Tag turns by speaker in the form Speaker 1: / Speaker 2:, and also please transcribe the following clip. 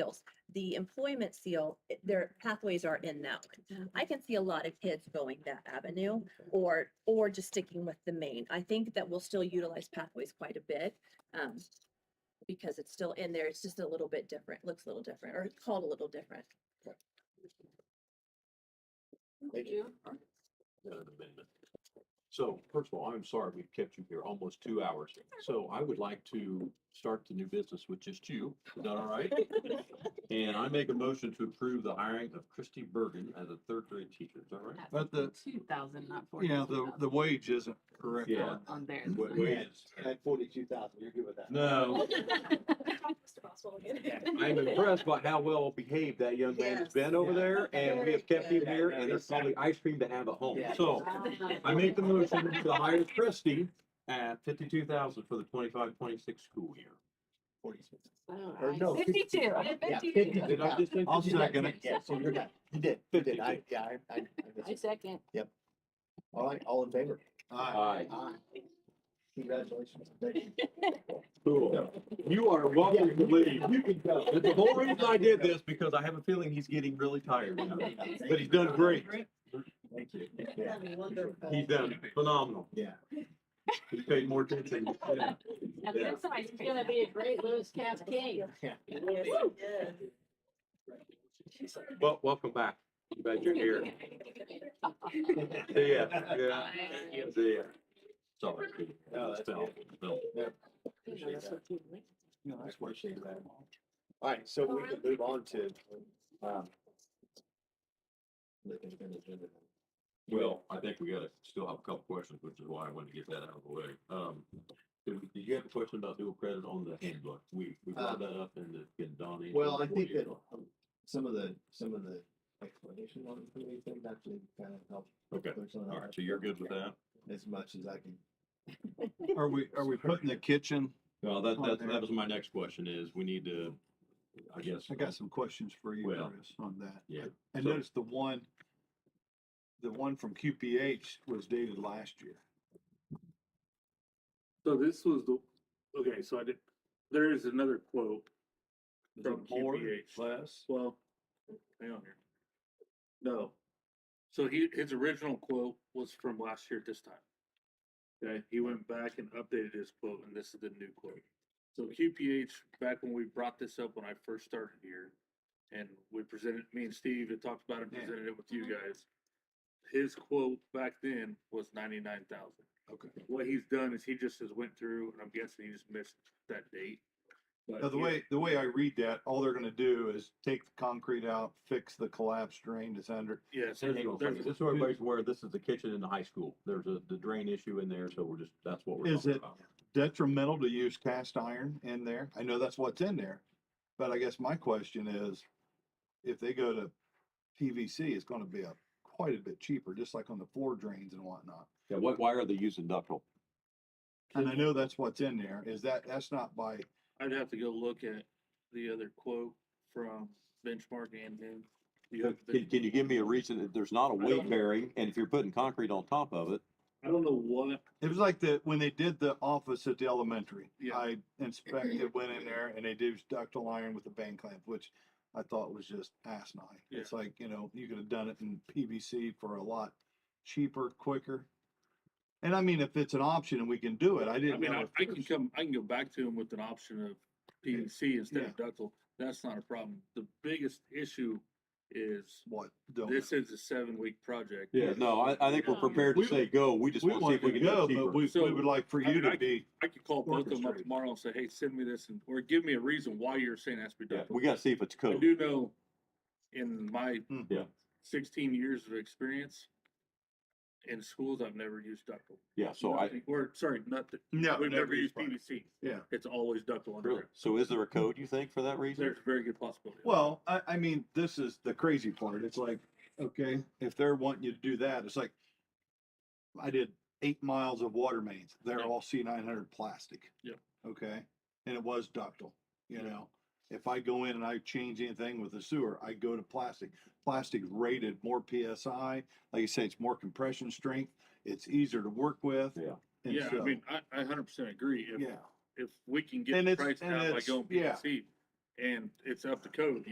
Speaker 1: seals. The employment seal, it- their pathways are in that one. I can see a lot of kids going that avenue or, or just sticking with the main. I think that we'll still utilize pathways quite a bit. Um, because it's still in there. It's just a little bit different, looks a little different, or it's called a little different.
Speaker 2: Thank you.
Speaker 3: uh, amendment. So first of all, I'm sorry we've kept you here almost two hours. So I would like to start the new business with just you. Is that all right? And I make a motion to approve the hiring of Christy Bergen as a third grade teacher. Is that right?
Speaker 4: But the-
Speaker 2: Two thousand, not forty.
Speaker 4: Yeah, the, the wage isn't correct.
Speaker 3: Yeah.
Speaker 2: On there.
Speaker 3: What- what is-
Speaker 5: At forty-two thousand, you're good with that?
Speaker 3: No, I'm impressed by how well behaved that young man has been over there and we have kept him here and there's probably ice cream to have at home. So I make the motion to hire Christy at fifty-two thousand for the 25-26 school year.
Speaker 5: Forty-two. Or no,
Speaker 2: Alright, Oh, Fifty-two.
Speaker 5: fifty-two. Yeah, fifty-two.
Speaker 3: Did I just?
Speaker 4: I'll second it.
Speaker 5: Yeah, so you're good. You did, you did. I, yeah, I, I,
Speaker 2: I
Speaker 5: I missed it.
Speaker 2: second.
Speaker 5: All right, all in favor?
Speaker 3: Aye.
Speaker 5: Aye. Congratulations.
Speaker 3: Cool. You are welcome to leave.
Speaker 5: You can go.
Speaker 3: But The whole reason I did this because I have a feeling he's getting really tired now. But he's done great.
Speaker 5: Thank you. Yeah.
Speaker 3: He's done phenomenal.
Speaker 5: Yeah.
Speaker 3: He's paid more attention. Yeah.
Speaker 2: Now,
Speaker 3: Yeah.
Speaker 2: that's ice cream. Gonna be a great Lewis Cavs game.
Speaker 5: Yeah.
Speaker 3: Well, welcome back. Glad you're here. See ya. Yeah. See ya. Sorry.
Speaker 5: No, that's
Speaker 3: Spell.
Speaker 5: good.
Speaker 3: Spell.
Speaker 5: Appreciate that. No, that's appreciate that. All right, so we can move on to, um.
Speaker 3: Well, I think we gotta still have a couple questions, which is why I wanted to get that out of the way. Um, did we- did you have a question about dual credit on the handbook? We, we brought that up in the, in Donnie.
Speaker 5: Uh, Well, I think that um, some of the, some of the explanation on the committee thing actually kind of helped.
Speaker 3: Okay,
Speaker 5: clear some of that
Speaker 3: all right,
Speaker 5: up
Speaker 3: so you're good with that?
Speaker 5: As much as I can.
Speaker 4: Are we, are we putting the kitchen?
Speaker 3: Well, that,
Speaker 4: on
Speaker 3: that,
Speaker 4: there.
Speaker 3: that was my next question is, we need to, I guess.
Speaker 4: I got some questions for you,
Speaker 3: Well,
Speaker 4: Chris, on that.
Speaker 3: yeah,
Speaker 4: I
Speaker 3: so-
Speaker 4: noticed the one, the one from QPH was dated last year.
Speaker 6: So this was the, okay, so I did, there is another quote.
Speaker 4: Is
Speaker 6: From
Speaker 4: it more,
Speaker 6: QPH.
Speaker 4: less?
Speaker 6: Well, hang on here. No. So he, his original quote was from last year at this time. Okay, he went back and updated his quote, and this is the new quote. So QPH, back when we brought this up when I first started here, and we presented, me and Steve had talked about it,
Speaker 4: Yeah.
Speaker 6: presented it with you guys. His quote back then was ninety-nine thousand.
Speaker 4: Okay.
Speaker 6: What he's done is he just has went through, and I'm guessing he just missed that date.
Speaker 3: Uh,
Speaker 6: But
Speaker 4: Now, the
Speaker 6: he-
Speaker 4: way, the way I read that, all they're gonna do is take the concrete out, fix the collapsed drain that's under.
Speaker 6: Yeah, so
Speaker 3: Hang on a
Speaker 6: there's,
Speaker 3: second. Just so everybody's aware, this is the kitchen in the high school. There's a, the drain issue in there, so we're just, that's what we're
Speaker 4: Is
Speaker 3: talking
Speaker 4: it-
Speaker 3: about.
Speaker 4: Detrimental to use cast iron in there? I know that's what's in there. But I guess my question is, if they go to PVC, it's gonna be a, quite a bit cheaper, just like on the floor drains and whatnot.
Speaker 3: Yeah, what, why are they using ductile?
Speaker 4: And I know that's what's in there, is that, that's not by,
Speaker 6: I'd have to go look at the other quote from Benchmark and then. you have the-
Speaker 3: Can, can you give me a reason that there's not a
Speaker 6: I don't
Speaker 3: weight
Speaker 6: know.
Speaker 3: bearing, and if you're putting concrete on top of it,
Speaker 6: I don't know what,
Speaker 4: it was like the, when they did the office at the elementary.
Speaker 6: Yeah.
Speaker 4: I inspected, went in there and they did ductile iron with a band clamp, which I thought was just asinine.
Speaker 6: Yeah.
Speaker 4: It's like, you know, you could have done it in PVC for a lot cheaper, quicker. And I mean, if it's an option and we can do it, I
Speaker 6: I
Speaker 4: didn't
Speaker 6: mean,
Speaker 4: know.
Speaker 6: I,
Speaker 4: if
Speaker 6: I can
Speaker 4: there's-
Speaker 6: come, I can go back to him with an option of PVC instead of ductile. That's not a problem. The biggest issue is
Speaker 4: What? don't-
Speaker 6: this is a seven week project. Um,
Speaker 3: yeah, no, I, I think we're prepared to
Speaker 4: We-
Speaker 3: say go. We just
Speaker 4: We
Speaker 3: want to see
Speaker 4: want
Speaker 3: if we
Speaker 4: to
Speaker 3: can do
Speaker 4: go,
Speaker 3: it cheaper.
Speaker 4: but we, we
Speaker 6: So,
Speaker 4: would like for
Speaker 6: I
Speaker 4: you
Speaker 6: mean,
Speaker 4: to
Speaker 6: I-
Speaker 4: be,
Speaker 6: I could call both of them up
Speaker 4: Orchestrated.
Speaker 6: tomorrow and say, hey, send me this and, or give me a reason why you're saying that's
Speaker 3: Yeah,
Speaker 6: ductile.
Speaker 3: we gotta see if it's
Speaker 6: I
Speaker 3: code.
Speaker 6: do know in my
Speaker 4: Mm.
Speaker 3: Yeah.
Speaker 6: sixteen years of experience in schools, I've never used ductile.
Speaker 3: Yeah, so I,
Speaker 6: Nothing- Or, sorry, not, that-
Speaker 4: no,
Speaker 6: we've never used
Speaker 4: PVC.
Speaker 6: PVC.
Speaker 4: Yeah.
Speaker 6: It's always ductile
Speaker 3: really,
Speaker 6: underground.
Speaker 3: so is there a code you think for that reason?
Speaker 6: There's a very good possibility.
Speaker 4: Well, I, I mean, this is the crazy part. It's like, okay, if they're wanting you to do that, it's like, I did eight miles of water mains. They're
Speaker 6: Yeah.
Speaker 4: all C nine hundred plastic.
Speaker 6: Yeah.
Speaker 4: Okay, and it was ductile, you
Speaker 6: Yeah.
Speaker 4: know? If I go in and I change anything with the sewer, I go to plastic. Plastic's rated more PSI. Like you say, it's more compression strength. It's easier to work with.
Speaker 3: Yeah.
Speaker 4: and
Speaker 6: Yeah, I
Speaker 4: so-
Speaker 6: mean, I, I hundred percent agree. If,
Speaker 4: Yeah,
Speaker 6: if we can
Speaker 4: And
Speaker 6: get the
Speaker 4: it's-
Speaker 6: price
Speaker 4: and
Speaker 6: down by
Speaker 4: it's-
Speaker 6: going
Speaker 4: yeah.
Speaker 6: PVC and it's up to code,